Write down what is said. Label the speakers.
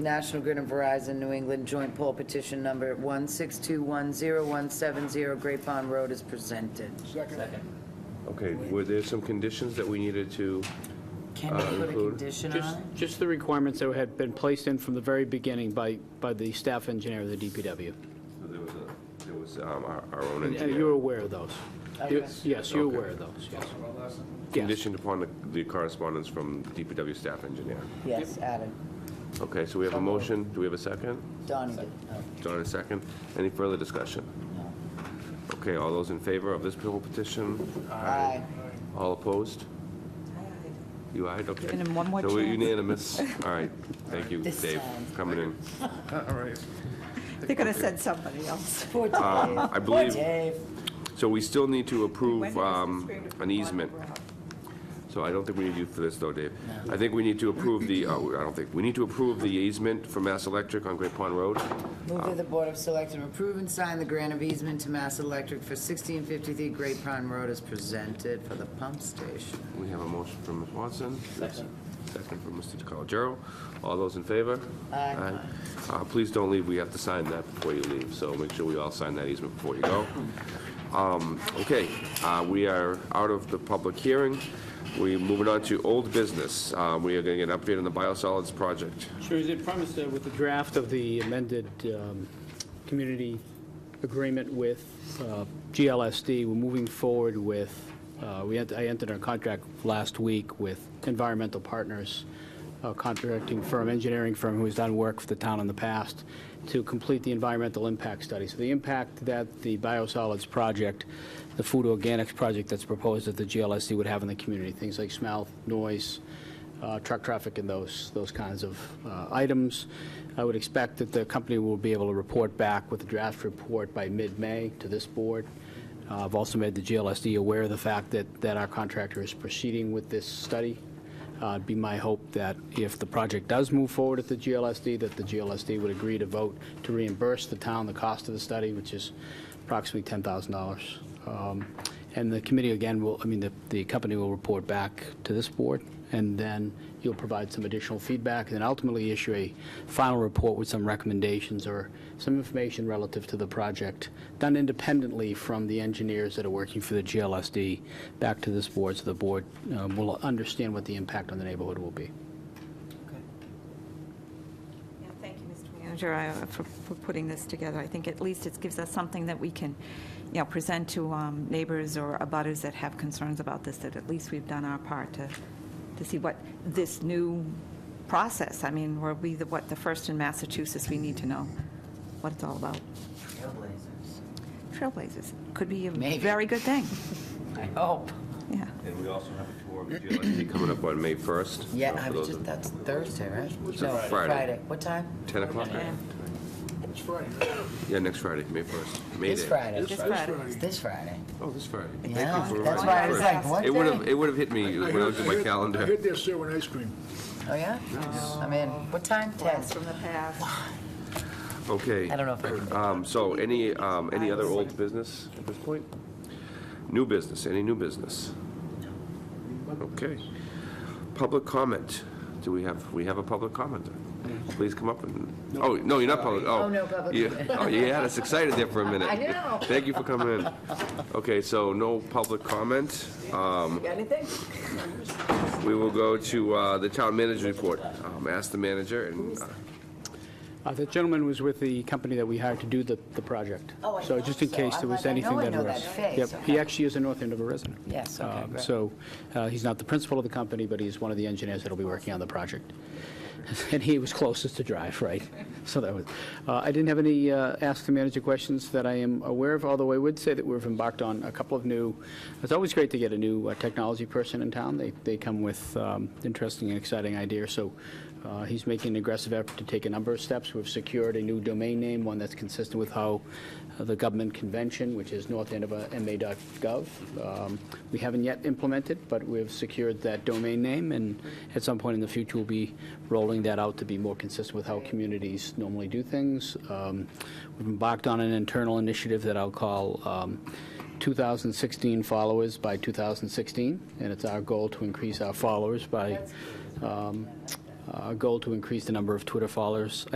Speaker 1: National Grid and Verizon New England Joint Poll Petition Number 16210170170 Great Pond Road is presented.
Speaker 2: Okay, were there some conditions that we needed to,
Speaker 1: Can
Speaker 2: Uh,
Speaker 1: we put a
Speaker 2: include-
Speaker 1: condition on
Speaker 3: Just,
Speaker 1: it?
Speaker 3: just the requirements that had been placed in from the very beginning by, by the staff engineer of the DPW.
Speaker 2: so there was, a- there was um, our our own
Speaker 3: And and you're
Speaker 2: engineer
Speaker 3: aware of those. You-
Speaker 1: Okay.
Speaker 3: Yes, you're
Speaker 2: Okay.
Speaker 3: aware of those, yes. Yes.
Speaker 2: conditioned upon the- the correspondence from DPW staff engineer.
Speaker 1: Yes, added.
Speaker 2: Okay, so we have a motion, do we have a second?
Speaker 1: Donnie did. Oh,
Speaker 2: John, a second. Any further discussion?
Speaker 1: no.
Speaker 2: Okay, all those in favor of this bill petition?
Speaker 1: Aye.
Speaker 2: All opposed? You eyed, okay.
Speaker 4: Give him one more
Speaker 2: So we're
Speaker 4: chance.
Speaker 2: unanimous. All right, thank you,
Speaker 1: This
Speaker 2: Dave,
Speaker 1: time.
Speaker 2: coming in.
Speaker 4: They could have said somebody else.
Speaker 1: Poor Dave.
Speaker 2: Um, I
Speaker 1: Poor
Speaker 2: believe,
Speaker 1: Dave.
Speaker 2: so we still need to
Speaker 4: When
Speaker 2: approve
Speaker 4: did this
Speaker 2: um,
Speaker 4: scream of
Speaker 2: an easement.
Speaker 4: Rob?
Speaker 2: So I don't think we need you for this, though, Dave. I think we need to approve the, oh, I don't think, we need to approve the easement for Mass Electric on Great Pond Road.
Speaker 1: Move that the Board of Selectmen approve and sign the grant of easement to Mass Electric for 1653 Great Pond Road is presented for the pump station.
Speaker 2: We have a motion from Ms. Watson. Second. Second from Mr. DeCarlo. All those in favor?
Speaker 1: Aye.
Speaker 2: Uh, Please don't leave, we have to sign that before you leave, so make sure we all sign that easement before you go. Um, Okay, uh, we are out of the public hearing. We're moving on to old business. Uh, We are going to get an update on the biosolids project.
Speaker 3: Sure, is it promised uh, with the draft of the amended um, community agreement with uh, GLSD, we're moving forward with, uh, we, ent- I entered our contract last week with Environmental Partners, a contracting firm, engineering firm who has done work for the town in the past, to complete the environmental impact study. So the impact that the biosolids project, the food organics project that's proposed at the GLSD would have in the community, things like smell, noise, uh, truck traffic and those, those kinds of uh, items. I would expect that the company will be able to report back with a draft report by mid-May to this board. Uh, I've also made the GLSD aware of the fact that, that our contractor is proceeding with this study. Uh, It'd be my hope that if the project does move forward at the GLSD, that the GLSD would agree to vote to reimburse the town the cost of the study, which is approximately $10,000. Um, And the committee, again, will, I mean, the, the company will report back to this board, and then you'll provide some additional feedback, and then ultimately issue a final report with some recommendations or some information relative to the project, done independently from the engineers that are working for the GLSD, back to this board, so the board um, will understand what the impact on the neighborhood will be.
Speaker 4: Yeah, Thank you, Mr. Manager, I- uh, for for putting this together. I think at least it gives us something that we can, you know, present to um, neighbors or abutters that have concerns about this, that at least we've done our part to, to see what this new process, I mean, were we the, what, the first in Massachusetts, we need to know what it's all about.
Speaker 1: Trailblazers.
Speaker 4: Trailblazers, could be a
Speaker 1: Maybe.
Speaker 4: very good thing,
Speaker 1: I hope.
Speaker 4: yeah.
Speaker 2: And we also have a tour of the GLSD coming up on May 1st.
Speaker 1: Yeah,
Speaker 2: Uh,
Speaker 1: I
Speaker 2: for
Speaker 1: was just,
Speaker 2: those at
Speaker 1: that's Thursday, right?
Speaker 2: It's
Speaker 1: No,
Speaker 2: Friday.
Speaker 1: Friday. What time?
Speaker 2: 10 o'clock? Yeah, next Friday, May 1st. May
Speaker 1: This
Speaker 2: Day.
Speaker 1: Friday.
Speaker 4: This Friday.
Speaker 1: It's this Friday.
Speaker 2: Oh, this Friday.
Speaker 1: Yeah,
Speaker 2: Thank you for
Speaker 1: that's
Speaker 2: reminding
Speaker 1: why I
Speaker 2: me
Speaker 1: was
Speaker 2: first.
Speaker 1: like, what
Speaker 2: It would have,
Speaker 1: day?
Speaker 2: it would have hit me when I looked at my
Speaker 5: I
Speaker 2: calendar.
Speaker 5: heard they're serving ice cream.
Speaker 1: Oh, yeah? I'm in. What time? Ten.
Speaker 4: Blast from the past.
Speaker 2: Okay.
Speaker 1: I don't know if I can.
Speaker 2: Um, So any, um, any other old business at this point? New business, any new business? Okay. Public comment. Do we have, we have a public commenter? Please come up and, oh, no, you're not public, oh.
Speaker 1: Oh, no, public.
Speaker 2: Yeah, oh, you had us excited there for a minute.
Speaker 1: I know.
Speaker 2: Thank you for coming in. Okay, so no public comment.
Speaker 1: You got anything?
Speaker 2: We will go to uh, the town manager report. Um, Ask the manager and, uh,
Speaker 3: Uh, The gentleman was with the company that we hired to do the, the project.
Speaker 1: Oh, I
Speaker 3: So just in
Speaker 1: thought so.
Speaker 3: case there
Speaker 1: I'm
Speaker 3: was
Speaker 1: like, I know
Speaker 3: anything
Speaker 1: I
Speaker 3: that
Speaker 1: know
Speaker 3: arose.
Speaker 1: that face.
Speaker 3: Yep, he actually is a North Andover resident.
Speaker 1: Yes, okay,
Speaker 3: Um,
Speaker 1: great.
Speaker 3: So uh, he's not the principal of the company, but he's one of the engineers that'll be working on the project. And he was closest to drive, right? So that was, uh, I didn't have any uh, ask the manager questions that I am aware of, although I would say that we've embarked on a couple of new, it's always great to get a new uh, technology person in town. They, they come with um, interesting and exciting ideas, so uh, he's making an aggressive effort to take a number of steps. We've secured a new domain name, one that's consistent with how uh, the government convention, which is northandoverma.gov. Um, We haven't yet implemented, but we've secured that domain name, and at some point in the future, we'll be rolling that out to be more consistent with how communities normally do things. Um, We've embarked on an internal initiative that I'll call um, 2016 Followers by 2016, and it's our goal to increase our followers by um, uh, a goal to increase the number of Twitter followers. I